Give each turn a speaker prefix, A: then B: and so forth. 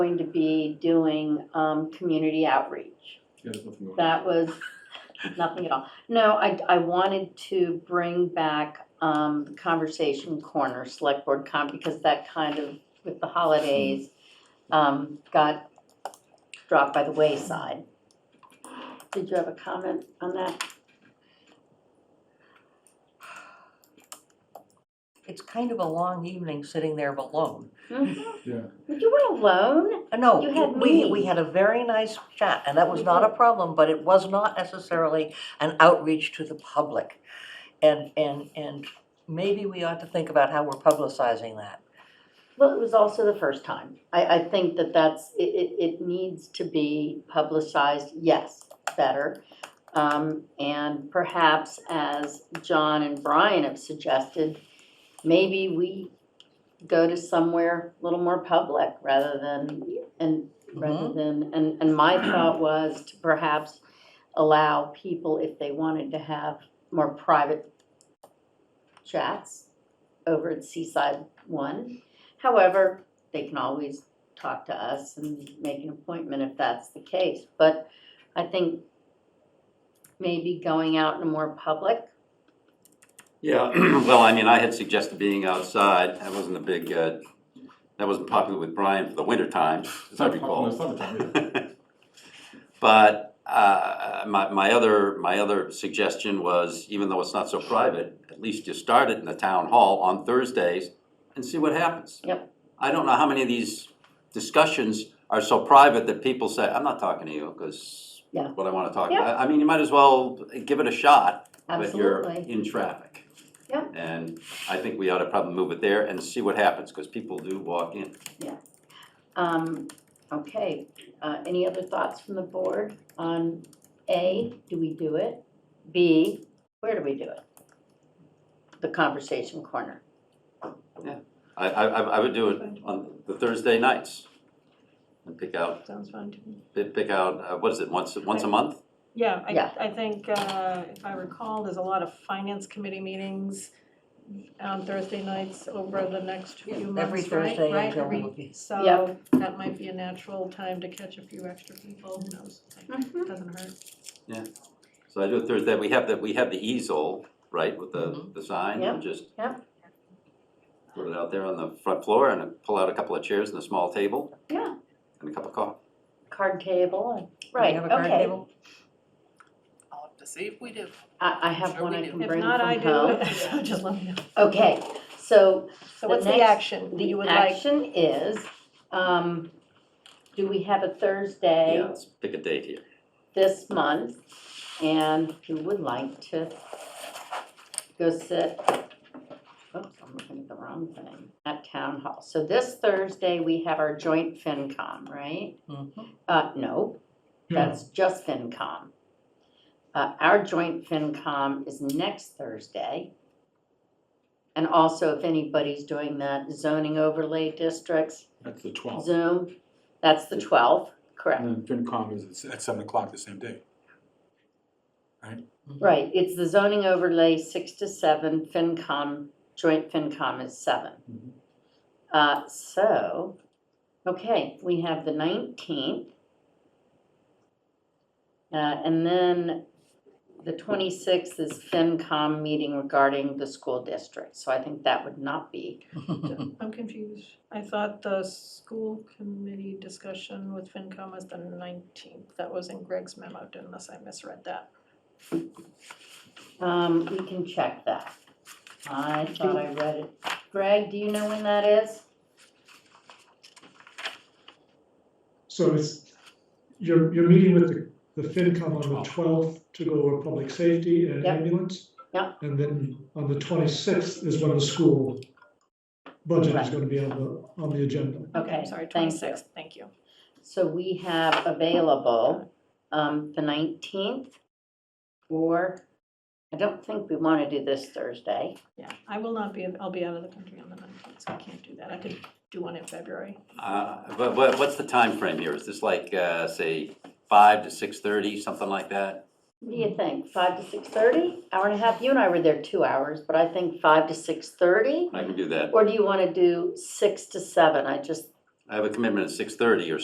A: going to be doing um, community outreach.
B: Yeah, there's nothing going on.
A: That was nothing at all. No, I, I wanted to bring back um, the conversation corner, select board con, because that kind of, with the holidays, um, got dropped by the wayside. Did you have a comment on that?
C: It's kind of a long evening sitting there alone.
B: Yeah,
A: Hmm? You were alone?
C: Uh, No,
A: You had
C: we,
A: me.
C: we had a very nice chat, and that was
A: We
C: not a
A: did.
C: problem, but it was not necessarily an outreach to the public. And, and, and maybe we ought to think about how we're publicizing that.
A: Well, it was also the first time. I, I think that that's, it, it, it needs to be publicized, yes, better. Um, and perhaps as John and Brian have suggested, maybe we go to somewhere a little more public rather than, and, rather than, and, and my thought was to perhaps allow people, if they wanted to have more private chats over at Seaside One. However, they can always talk to us and make an appointment if that's the case. But I think maybe going out in a more public,
D: Yeah, well, I mean, I had suggested being outside, that wasn't a big, uh, that wasn't popular with Brian for the winter time,
B: it's
D: as I
B: not popular in the
D: recall.
B: summertime either.
D: But, uh, my, my other, my other suggestion was, even though it's not so private, at least you start it in the town hall on Thursdays and see what happens.
A: Yep.
D: I don't know how many of these discussions are so private that people say, I'm not talking to you, cause
A: Yeah.
D: what I wanna talk
A: Yeah.
D: about. I mean, you might as well give it a shot. But you're
A: absolutely.
D: in traffic.
A: Yeah.
D: And I think we ought to probably move it there and see what happens, because people do walk in.
A: Um, okay, uh, any other thoughts from the board on A, do we do it? B, where do we do it? The conversation corner.
D: I, I, I- I would do it on the Thursday nights. And pick out,
E: Sounds fun to me.
D: pi- pick out, uh, what is it, once, once a month?
E: Yeah,
A: Yeah.
E: I, I think, uh, if I recall, there's a lot of finance committee meetings on Thursday nights over the next few
C: Every
E: months, right?
C: Thursday
E: Right,
C: until
E: every-
C: we-
E: So that might be a natural time to catch a few extra people, who knows, doesn't hurt.
D: So I do it Thursday, we have the, we have the easel, right, with the,
A: Mm-hmm.
C: Mhm.
D: the sign, and just
A: yeah.
D: put it out there on the front floor and pull out a couple of chairs and a small table.
A: Yeah.
D: And a cup of coffee.
A: Card table and,
C: Do we
A: right,
C: have a card
A: okay.
C: table?
F: I'll have to see if we do.
A: I, I have
F: Sure
A: one
F: we
A: I
F: do.
A: can
E: If
A: bring
E: not, I
A: from
E: do,
A: home.
E: it. just let me know.
A: Okay, so
E: So what's the
A: next-
E: action that you
A: The
E: would like?
A: action is, um, do we have a
D: Yeah,
A: Thursday
D: let's pick a date here.
A: this month? And if you would like to go sit, oops, I'm looking at the wrong thing, at Town Hall. So this Thursday, we have our joint FinCom, right?
C: Mhm.
A: Uh, no, that's just FinCom. Uh, our joint FinCom is next Thursday. And also, if anybody's doing that zoning overlay districts,
B: That's the twelfth.
A: Zoom, that's the twelfth, correct?
B: And then FinCom is at seven o'clock the same day.
C: mm-hmm.
A: Right, it's the zoning overlay six to seven, FinCom, joint FinCom is seven.
B: Mhm.
A: Uh, so, okay, we have the nineteenth. Uh, and then the twenty-sixth is FinCom meeting regarding the school district, so I think that would not be.
E: I'm confused. I thought the school committee discussion with FinCom was the nineteenth. That was in Greg's memo, unless I misread that.
A: Um, we can check that. I thought I read it. Greg, do you know when that is?
G: So it's, you're, you're meeting with the, the FinCom on the twelfth to go over public safety and
A: Yep.
G: ambulance.
A: Yep.
G: And then on the twenty-sixth is when the school budget is
A: Right.
G: gonna be on the, on the agenda.
E: Okay,
A: Okay,
E: I'm sorry,
A: thank you.
E: twenty-sixth, thank you.
A: So we have available, um, the nineteenth, or, I don't think we wanna do this Thursday.
E: Yeah, I will not be, I'll be out of the country on the nineteenth, so I can't do that. I could do one in February.
D: Uh, but, but what's the time frame here? Is this like, uh, say, five to six-thirty, something like that?
A: What do you think, five to six thirty, hour and a half? You and I were there two hours, but I think five to six thirty?
D: I can do that.
A: Or do you wanna do six to seven? I just,
D: I have a commitment at six thirty or